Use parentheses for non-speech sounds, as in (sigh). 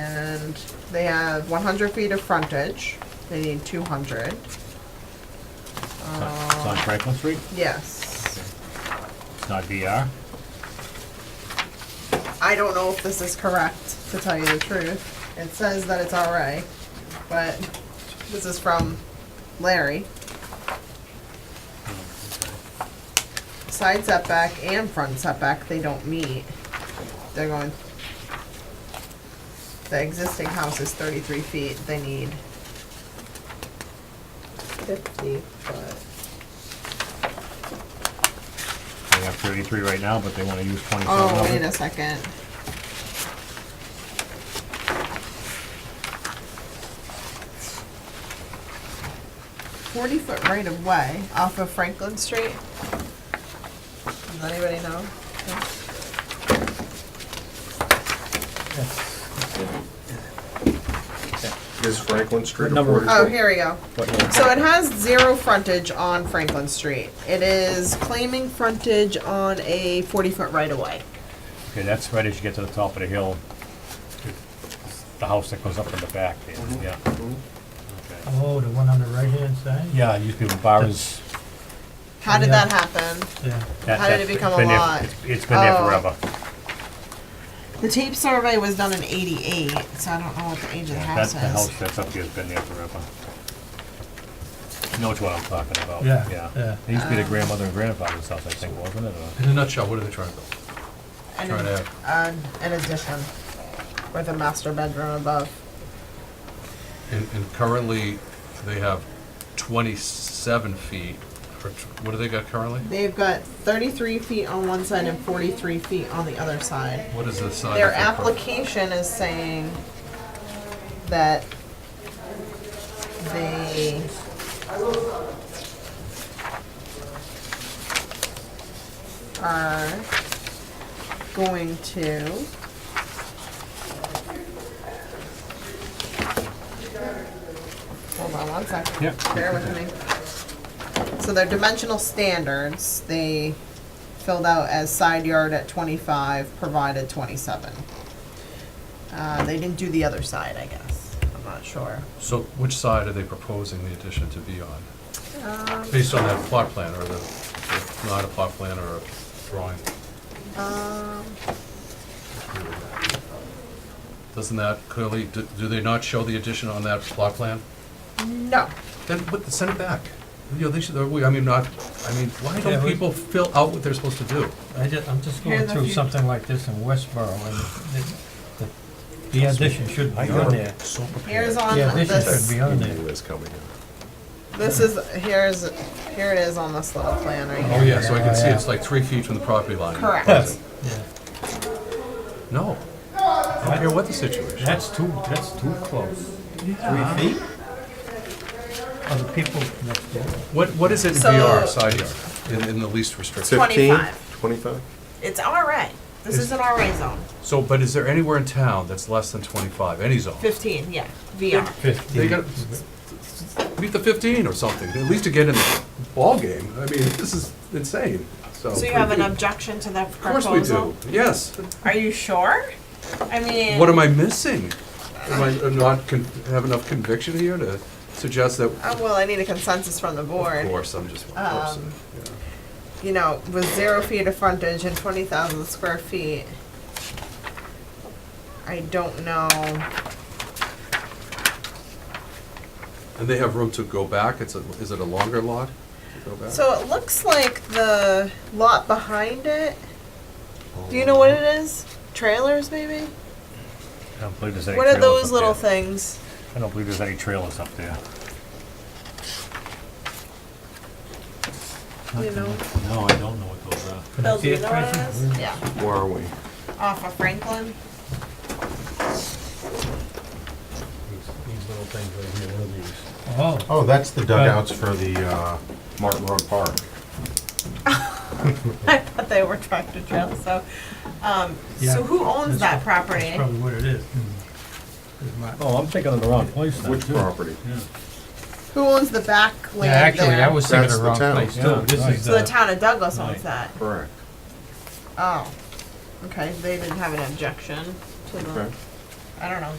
need, they have one hundred feet of frontage, they need two hundred, Um, It's on- it's on Franklin Street, yes. it's not VR. I don't know if this is correct, to tell you the truth. It says that it's RA, but this is from Larry. Side setback and front setback, they don't meet. They're going, the existing house is thirty-three feet, they need fifty foot. They have thirty-three right now, but they wanna use twenty-seven Oh, of wait a it. second. Forty foot right of way off of Franklin Street. Does anybody know? No? Is Franklin Street Number- affordable? Oh, here we go. What? So it has zero frontage on Franklin Street. It is claiming frontage on a forty foot right of way. Okay, that's right as you get to the top of the hill. It's The house that goes up in the back, there, Mm-hmm. yeah. Okay. Oh, the one on the right-hand side? Yeah, it used to be bars. How did Yeah. that happen? Yeah. that- How did that's it become a been there- lot? it's- It's been there Oh. forever. The tape survey was done in eighty-eight, so I don't know what the age of the Yeah, house That's the house is. that's up here, has been there forever. You Know what I'm talking about? Yeah, yeah. It used to Uh. be the grandmother and grandfather's house, I think, wasn't it? or- In a nutshell, what are they trying to build? And Try to- an, an addition with a master bedroom above. And, and currently, they have twenty-seven feet, or tw- what do they got currently? They've got thirty-three feet on one side and forty-three feet on the other side. What is the size? Their of their property? application is saying that they. Are going to. Hold on one sec. Yeah. Bear with me. So their dimensional standards, they filled out as side yard at twenty-five, provided twenty-seven. Uh, they didn't do the other side, I guess, I'm not sure. So which side are they proposing the addition to be on? Um, Based on that plot plan, or the, if not a plot plan or a drawing? um, Doesn't that clearly, do do they not show the addition on that plot plan? no, Then put, send it back. You know, they should, we- I mean, not, I mean, why Yeah, don't we- people fill out what they're supposed to do? I just, I'm just Here's going a through few- something like this in Westboro, and the- the- the addition should be on there. So prepared. here's on The addition should this, be on there. Is coming in. this is, here's, here it is on this little plan right Oh, here. yeah, so I can see Yeah. it's like three feet from the property line. Correct. Yeah. No. I don't care what the situation. That's too, that's too close. Three feet? Are the people next door? What, what is it in So- VR, side yard, in, in the least restrictive? 25. Twenty-five? It's alright, this is an RA zone, So, but is there anywhere in town that's less than twenty-five, any zone? fifteen, yeah, VR. They Fifteen. gotta meet the fifteen or something, at least to get in the ballgame. I mean, this is insane, so. So you have an objection to that Of course proposal? we do, yes. Are you sure? I mean. What am I missing? Am I not, con- have enough conviction here to suggest that, Uh, well, I need a consensus from the of board. Um, course, I'm just one person. yeah. You know, with zero feet of frontage and twenty thousand square feet. I don't know. And they have room to go back? It's a, is it a longer lot to go back? So it looks like the lot behind it. Do you know what it is? Trailers, maybe? I don't believe there's any What are trailers those up little there. things? I don't believe there's any trailers up there. You know? No, I don't know what those are. Can I Bill, see do you it, know what it Tracy? is? Yeah, Where are we? off of Franklin. (laughs) These little things right here, one of these. Oh. Oh, that's the dugouts for the uh, Martin Road Park. I thought they were tractor trailers, so, um, Yeah, so who owns that's that what- property? That's probably what it is. Is my- Oh, I'm thinking of the wrong place now. Which too. property? Who owns the back land Yeah, actually, there? I was uh, thinking That's of the the wrong town. place Yeah, too. This right. is So the the, town of Douglas owns Right. that. Correct. Oh, okay, they didn't have an objection to the, Okay. I don't know,